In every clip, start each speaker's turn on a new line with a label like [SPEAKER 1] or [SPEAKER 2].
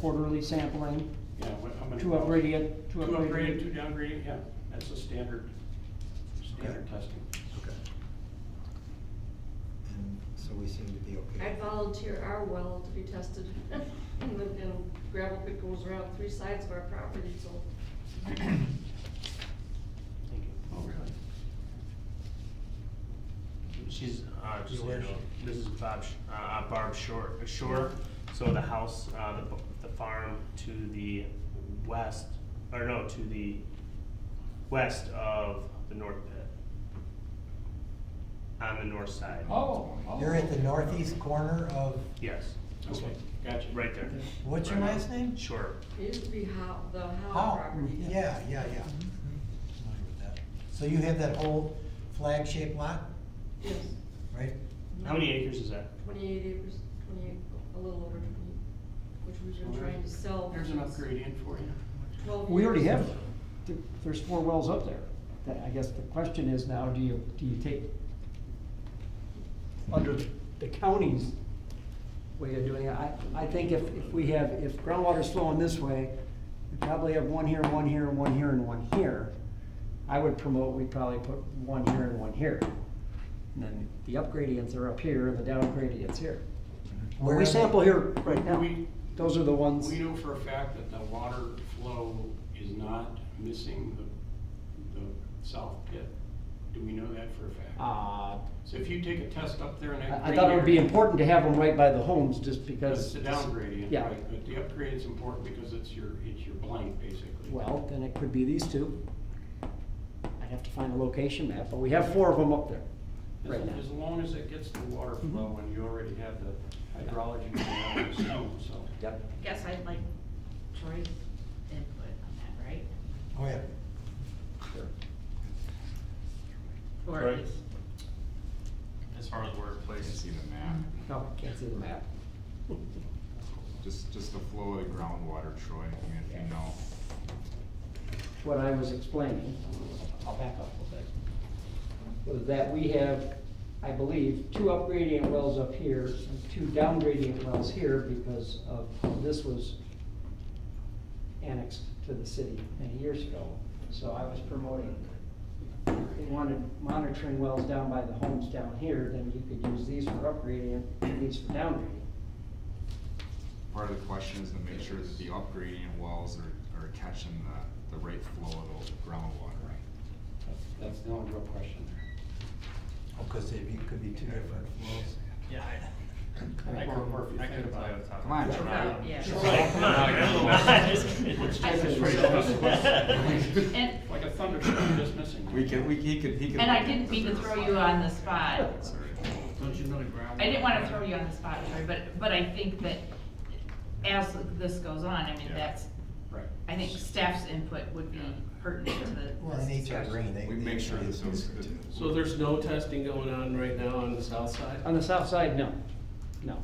[SPEAKER 1] quarterly sampling,
[SPEAKER 2] Yeah, what, how many?
[SPEAKER 1] two upgrade it, two
[SPEAKER 2] Two
[SPEAKER 1] upgrade
[SPEAKER 2] upgraded, two
[SPEAKER 1] it.
[SPEAKER 2] downgraded, yeah, that's the standard, standard testing.
[SPEAKER 3] Okay. And so we seem to be okay.
[SPEAKER 4] I volunteer our well to be tested, and the and gravel pit goes around three sides of our property, so.
[SPEAKER 5] Thank you.
[SPEAKER 2] Oh, really?
[SPEAKER 5] She's, uh,
[SPEAKER 3] Your
[SPEAKER 5] just, so you know,
[SPEAKER 3] worship.
[SPEAKER 5] this is Bob, Sh- uh, uh, Barb Short, Shore, so the house, uh, the, b- the farm to the west, or no, to the west of the north pit. On the north side.
[SPEAKER 2] Oh. oh,
[SPEAKER 3] You're at the
[SPEAKER 2] okay.
[SPEAKER 3] northeast corner of,
[SPEAKER 5] Yes,
[SPEAKER 2] Okay, gotcha.
[SPEAKER 5] right there.
[SPEAKER 3] what's your
[SPEAKER 5] Right.
[SPEAKER 3] last name?
[SPEAKER 5] Shore,
[SPEAKER 4] It used to be how, the how
[SPEAKER 3] How?
[SPEAKER 4] property.
[SPEAKER 3] Yeah, yeah, yeah. Familiar with that. So you have that whole flag-shaped lot,
[SPEAKER 4] Yes,
[SPEAKER 3] right?
[SPEAKER 5] how many acres is that?
[SPEAKER 4] twenty-eight acres, twenty-eight, a little over twenty, which we've been trying to sell.
[SPEAKER 2] There's an
[SPEAKER 4] since
[SPEAKER 2] upgrade in for you.
[SPEAKER 4] Twelve.
[SPEAKER 1] We already
[SPEAKER 4] years.
[SPEAKER 1] have, th- there's four wells up there. That- I guess the question is now, do you, do you take, under the county's way of doing it, I, I think if, if we have, if groundwater's flowing this way, we probably have one here, one here, and one here, and one here. I would promote, we probably put one here and one here. And then the upgradients are up here, and the downgradients here.
[SPEAKER 3] Where are
[SPEAKER 1] We
[SPEAKER 3] they?
[SPEAKER 1] sample here right now.
[SPEAKER 2] We-
[SPEAKER 1] Those are the ones.
[SPEAKER 2] We know for a fact that the water flow is not missing the, the south pit. Do we know that for a fact?
[SPEAKER 1] Uh,
[SPEAKER 2] So if you take a test up there and that.
[SPEAKER 1] I I thought it would be
[SPEAKER 2] gradient-
[SPEAKER 1] important to have them right by the homes, just because.
[SPEAKER 2] That's the down gradient,
[SPEAKER 1] Yeah.
[SPEAKER 2] right, but the upgrade's important because it's your, it's your blank, basically.
[SPEAKER 1] Well, then it could be these two. I'd have to find a location map, but we have four of them up there
[SPEAKER 2] As-
[SPEAKER 1] right now.
[SPEAKER 2] As long as it gets the water flow and you already have the hydrology going on the stone, so.
[SPEAKER 1] Yep.
[SPEAKER 6] Guess I'd like Troy's input on that, right?
[SPEAKER 3] Go ahead.
[SPEAKER 6] Or
[SPEAKER 7] Troy?
[SPEAKER 6] at least,
[SPEAKER 7] As far as workplace. See the map,
[SPEAKER 1] No, can't see the map.
[SPEAKER 7] just, just the flow of the groundwater, Troy, I mean, if you know.
[SPEAKER 1] What I was explaining, I'll back up a little bit, was that we have, I believe, two upgradient wells up here and two downgradient wells here because of, how this was annexed to the city many years ago. So I was promoting, if they wanted monitoring wells down by the homes down here, then you could use these for upgradient and these for downgradient.
[SPEAKER 7] Part of the question is to make sure that the upgrading wells are, are catching the, the right flow of the groundwater.
[SPEAKER 2] That's, that's the only real question there.
[SPEAKER 3] Oh, cause they be- could be two different flows.
[SPEAKER 8] Yeah,
[SPEAKER 2] I
[SPEAKER 8] I, I
[SPEAKER 2] can-
[SPEAKER 8] could, I could tell you off the top of my
[SPEAKER 7] Come on,
[SPEAKER 8] head.
[SPEAKER 7] Troy.
[SPEAKER 6] Well, yeah.
[SPEAKER 8] Right, come on, I'm just kidding.
[SPEAKER 2] Let's
[SPEAKER 6] I-
[SPEAKER 2] just
[SPEAKER 1] That's
[SPEAKER 2] straight up.
[SPEAKER 6] And,
[SPEAKER 2] Like a thunderstorm just missing.
[SPEAKER 7] We could, we, he could, he could.
[SPEAKER 6] and I didn't mean to throw you on the spot.
[SPEAKER 7] Sorry.
[SPEAKER 2] Don't you know the ground?
[SPEAKER 6] I didn't wanna throw you on the spot, Troy, but, but I think that as this goes on, I mean,
[SPEAKER 7] Yeah.
[SPEAKER 6] that's,
[SPEAKER 2] Right.
[SPEAKER 6] I think staff's input would be pertinent to the.
[SPEAKER 3] Well, in each upgrade, they.
[SPEAKER 7] We
[SPEAKER 3] they-
[SPEAKER 7] make sure
[SPEAKER 3] they-
[SPEAKER 7] that those. that-
[SPEAKER 9] So there's no testing going on right now on the south side?
[SPEAKER 1] On the south side, no, no.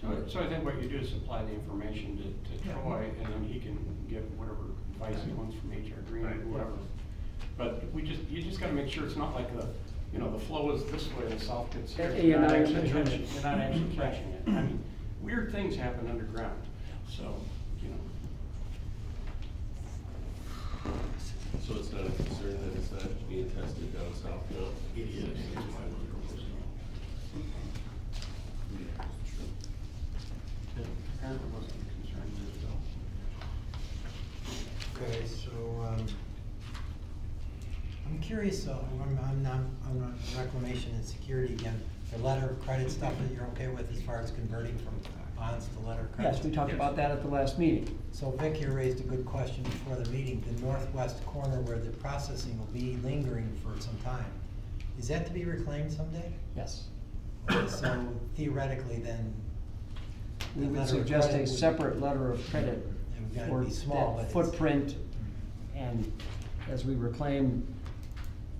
[SPEAKER 2] So, so I think what you do is supply the information to, to
[SPEAKER 6] Yeah.
[SPEAKER 2] Troy, and then he can give whatever advice he wants from HR Green or
[SPEAKER 5] Right.
[SPEAKER 2] whoever. But we just, you just gotta make sure it's not like the, you know, the flow is this way and the south gets here.
[SPEAKER 1] Yeah, you're
[SPEAKER 2] You're not
[SPEAKER 1] not
[SPEAKER 2] actually
[SPEAKER 1] measuring
[SPEAKER 2] catching,
[SPEAKER 1] it.
[SPEAKER 2] you're not actually catching it. I mean, weird things happen underground, so, you know.
[SPEAKER 9] So it's not a concern that it's not being tested down south now?
[SPEAKER 2] It is. Apparently wasn't concerned with it though.
[SPEAKER 3] Okay, so, um, I'm curious, uh, I'm, I'm, not- I'm on reclamation and security again, the letter of credit stuff that you're okay with as far as converting from bonds to letter of credit?
[SPEAKER 1] Yes, we talked about that at the last meeting.
[SPEAKER 3] So Vic here raised a good question before the meeting, the northwest corner where the processing will be lingering for some time, is that to be reclaimed someday?
[SPEAKER 1] Yes.
[SPEAKER 3] Okay, So theoretically then.
[SPEAKER 1] We
[SPEAKER 3] the letter
[SPEAKER 1] would
[SPEAKER 3] of
[SPEAKER 1] suggest a
[SPEAKER 3] credit would-
[SPEAKER 1] separate letter of credit
[SPEAKER 3] And we gotta
[SPEAKER 1] for
[SPEAKER 3] be small, but
[SPEAKER 1] that
[SPEAKER 3] it's-
[SPEAKER 1] footprint. And as we reclaim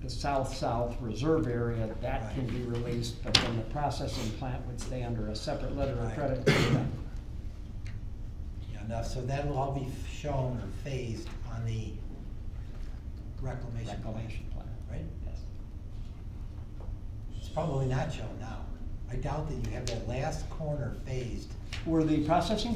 [SPEAKER 1] the south-south reserve area, that can be released, but then the processing plant would stay under a separate letter of
[SPEAKER 3] Right.
[SPEAKER 1] credit.
[SPEAKER 3] Yeah, enough, so that'll all be shown or phased on the reclamation plan,
[SPEAKER 1] Reclamation plan.
[SPEAKER 3] right?
[SPEAKER 1] Yes.
[SPEAKER 3] It's probably not shown now. I doubt that you have that last corner phased
[SPEAKER 1] Were the processing